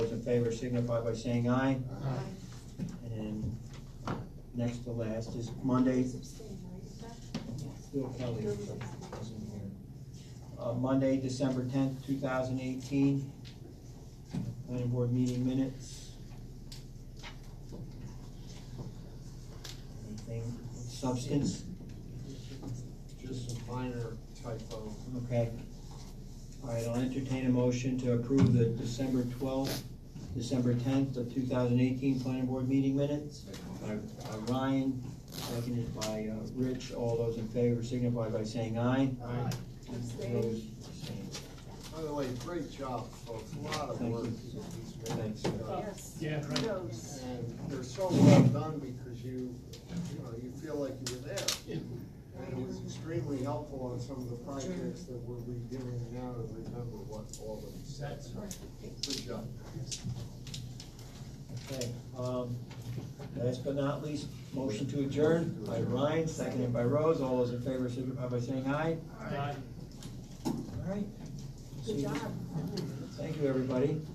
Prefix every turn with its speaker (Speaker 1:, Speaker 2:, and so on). Speaker 1: favor signify by saying aye.
Speaker 2: Aye.
Speaker 1: And next to last is Monday, Bill Kelly wasn't here. Uh, Monday, December tenth, two thousand eighteen, planning board meeting minutes. Anything of substance,
Speaker 3: Just a minor typo.
Speaker 1: okay. All right, I'll entertain a motion to approve the December twelfth, December tenth of two thousand eighteen planning board meeting minutes. By by Ryan, seconded by uh, Rich, all those in favor signify by saying aye.
Speaker 3: Aye.
Speaker 1: Opposed, abstained.
Speaker 3: By the way, great job, folks, a lot of
Speaker 1: Thank
Speaker 3: work.
Speaker 1: you.
Speaker 3: these minutes,
Speaker 1: Thanks.
Speaker 3: uh,
Speaker 2: Yeah, right.
Speaker 3: And they're so well done because you, you know, you feel like you were there. And it was extremely helpful on some of the projects that we're redoing now to remember what all of these said. Good job.
Speaker 1: Okay, um, last but not least, motion to adjourn by Ryan, seconded by Rose, all those in favor signify by saying aye.
Speaker 2: Aye.
Speaker 1: All right.
Speaker 4: Good job.
Speaker 1: Thank you, everybody.